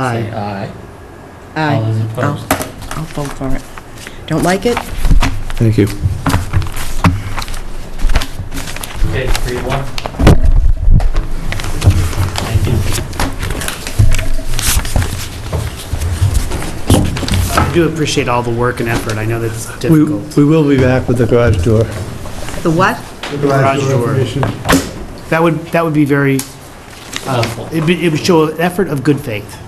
Aye. Aye. All Aye. those I'll opposed? I'll vote for it. Don't like it? Thank you. Okay, three to one. Thank you. I do appreciate all the work and effort. I know that's We, difficult. we will be back with the garage door. The what? Garage door. That would, that would be very, Helpful. it'd be- it would show an effort of good faith.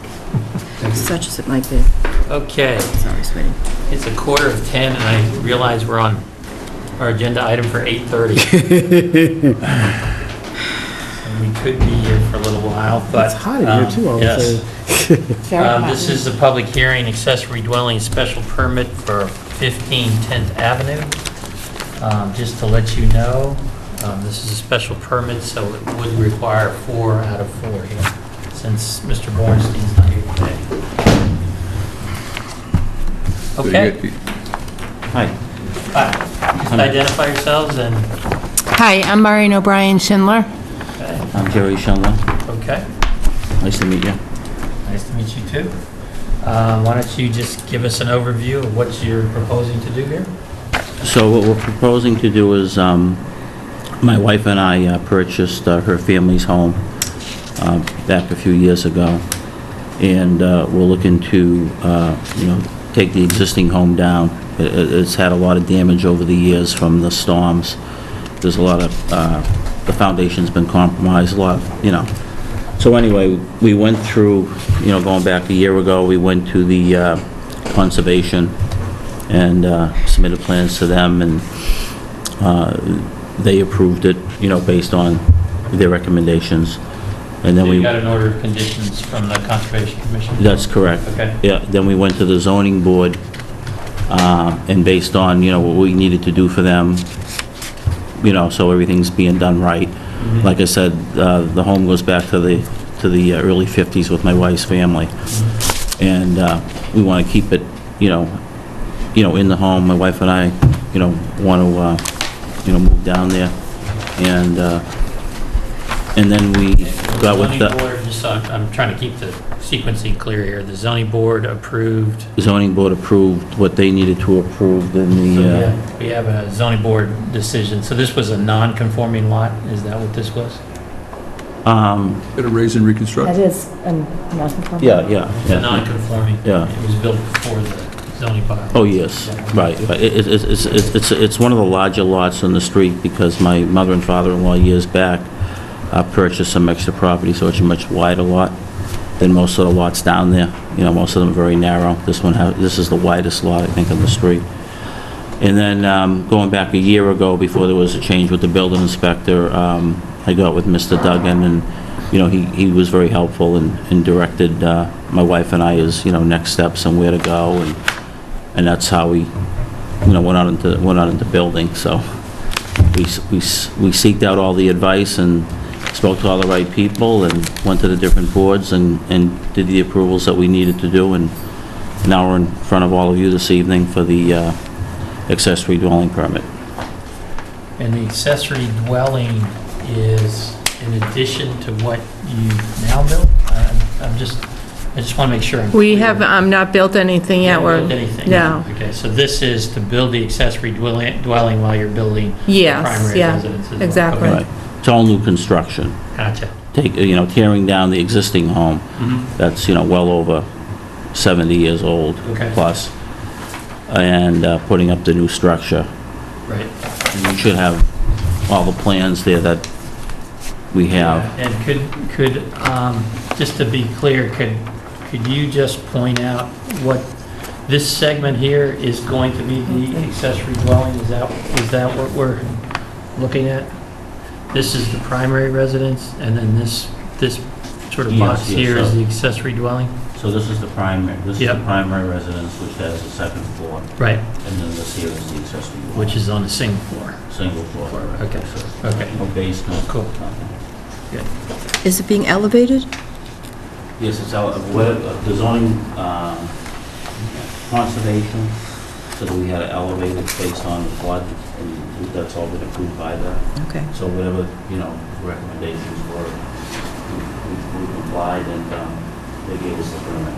Such as it might be. Okay, It's always waiting. it's a quarter of 10, and I realize we're on our agenda item for 8:30. And we could be here for a little while, but... It's hot in here, um, too, all of a yes. sudden. Um, This is the public hearing, accessory dwelling special permit for 15 10th Avenue. Um, Just to let you know, um, this is a special permit, so it would require four out of four here, since Mr. Bornstein's not here today. Okay. Hi, Hi. Just identify yourselves and, Hi, I'm Maureen O'Brien Schindler. okay, I'm Jerry Shanlon. okay, Nice to meet you. nice to meet you too. Uh, Why don't you just give us an overview of what you're proposing to do here? So what we're proposing to do is, um, my wife and I uh, purchased uh, her family's home uh, back a few years ago, and uh, we're looking to, uh, you know, take the existing home down. It- it- It's had a lot of damage over the years from the storms. There's a lot of, uh, the foundation's been compromised, a lot, of, you know. So anyway, we went through, you know, going back a year ago, we went to the uh, conservation and uh, submitted plans to them, and uh, they approved it, you know, based on their recommendations. And then So we... you got an order of conditions from the Conservation Commission? That's correct. Okay. Yeah, then we went to the zoning board, uh, and based on, you know, what we needed to do for them, you know, so everything's being done right. Mm-hmm. Like I said, uh, the home goes back to the, to the uh, early 50s with my wife's family. And uh, we want to keep it, you know, you know, in the home, my wife and I, you know, want to, uh, you know, move down there. And, uh, and then we got with Zoning the board, just, I'm I'm trying to keep the sequencing clear here. The zoning board approved, zoning board approved what they needed to approve in so we the, uh, have- we have a zoning board decision. So this was a non-conforming lot, is that what this was? Um, Better raise and reconstruct. That is a non-conforming. yeah, yeah, The yeah. non-conforming? Yeah. It was built before the zoning bylaw? Oh, yes, right. But it- it- It's it's- it's- it's- it's one of the larger lots on the street because my mother and father-in-law years back uh, purchased some extra property, so it's a much wider lot than most of the lots down there. You know, most of them are very narrow. This one, ha- this is the widest lot, I think, on the street. And then, um, going back a year ago, before there was a change with the building inspector, um, I got with Mr. Duggan, and, you know, he, he was very helpful and and directed uh, my wife and I as, you know, next steps and where to go, and, and that's how we, you know, went out into, went out into building, so we, s- we s- we seeked out all the advice and spoke to all the right people, and went to the different boards and, and did the approvals that we needed to do, and now we're in front of all of you this evening for the uh, accessory dwelling permit. And the accessory dwelling is in addition to what you now built? I- I'm just, I just want to make sure. I'm We clear. have um, not built anything yet. You haven't We're built anything? No. Okay, so this is to build the accessory dwelling dwelling while you're building the Yes, primary yeah. residence? as well. exactly. Okay, Right. It's all new construction. Gotcha. Take, uh, you know, tearing down the existing home that's, you know, well over 70 years old Okay. plus, and uh, putting up the new structure. Right. And You should have all the plans there that we have. And could, could, um, just to be clear, could, could you just point out what, this segment here is going to be the accessory dwelling? Is that, is that what we're looking at? This is the primary residence, and then this, this sort of Yes, box yes, here is so- the accessory dwelling? So this is the primary, this is the Yep. primary residence, which has a second floor, Right, and then this here is the accessory, which is on the single floor. single floor. Okay, okay. No basement. Cool. Is it being elevated? Yes, it's out of, what, of the zoning, um, conservation, so that we had it elevated based on the flood, and that's all been approved by the, Okay. so whatever, you know, recommendations were, we we complied, and, um, They gave us the permit.